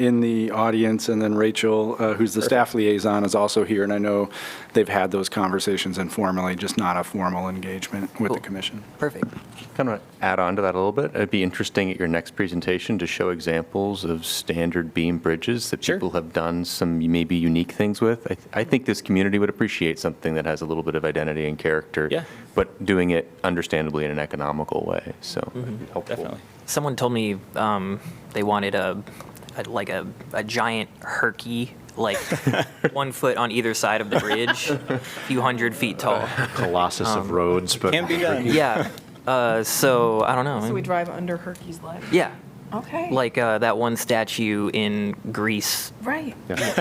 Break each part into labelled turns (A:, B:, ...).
A: in the audience, and then Rachel, uh, who's the staff liaison, is also here, and I know they've had those conversations informally, just not a formal engagement with the
B: Cool.
A: commission.
B: Perfect.
C: Kind of add on to that a little bit. It'd be interesting at your next presentation to show examples of standard beam bridges that
B: Sure.
C: people have done some maybe unique things with. I, th- I think this community would appreciate something that has a little bit of identity and character,
D: Yeah.
C: but doing it understandably in an economical way. So it'd be helpful.
D: Mm-hmm. Definitely.
B: Someone told me um, they wanted a, a like a, a giant herky, like one foot on either side of the bridge, a few hundred feet tall.
E: Colossus
B: Um,
E: of roads, but
D: Can be done.
B: Yeah. Uh, so I don't know.
F: So we drive under Herky's leg.
B: yeah.
F: Okay.
B: Like uh, that one statue in Greece.
F: right.
B: I don't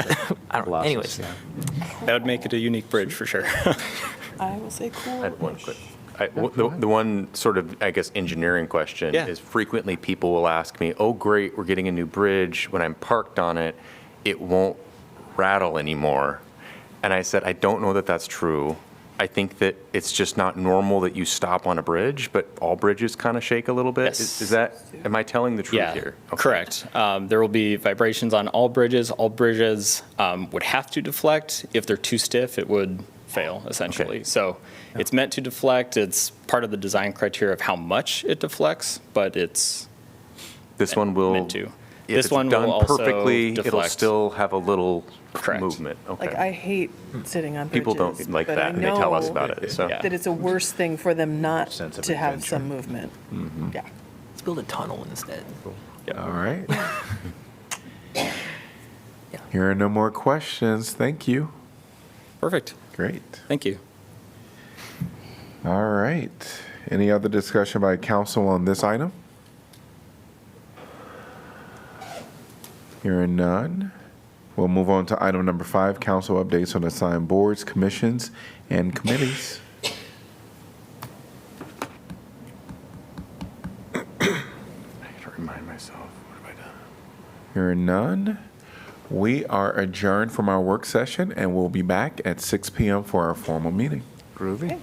B: know.
E: Colossus,
B: Anyways,
E: yeah.
D: That would make it a unique bridge for sure.
F: I will say cool.
C: I had one quick. I- w- The the one sort of, I guess, engineering question
D: Yeah.
C: is frequently people will ask me, oh, great, we're getting a new bridge. When I'm parked on it, it won't rattle anymore. And I said, I don't know that that's true. I think that it's just not normal that you stop on a bridge, but all bridges kind of shake a little bit. Is-
D: Yes.
C: Is that, am I telling the truth
D: yeah,
C: here? Okay.
D: correct. Um, there will be vibrations on all bridges. All bridges um, would have to deflect. If they're too stiff, it would fail essentially.
C: Okay.
D: So it's meant to deflect. It's part of the design criteria of how much it deflects, but it's
C: This one will.
D: meant to.
C: if
D: This
C: it's
D: one will
C: Done
D: also
C: perfectly, it'll
D: deflect.
C: still have a little
D: Correct.
C: movement. Okay.
F: Like, I hate
E: Hmm.
F: sitting on bridges.
C: People don't like
F: but I
C: that, and they tell us
F: know
C: about it, so.
D: Yeah.
F: That it's a worse thing for them not
E: Sense of
F: to have
E: adventure.
F: some movement.
C: Mm-hmm.
F: Yeah.
B: let's build a tunnel instead.
E: All right.
B: Yeah.
E: Here are no more questions. Thank you.
D: perfect.
E: Great.
D: Thank you.
E: All right. Any other discussion by council on this item? Hearing none. We'll move on to item number five, council updates on assigned boards, commissions, and committees.
C: I gotta remind myself, what have I done?
E: Hearing none. We are adjourned from our work session and we'll be back at 6 PM for our formal meeting.
F: Okay.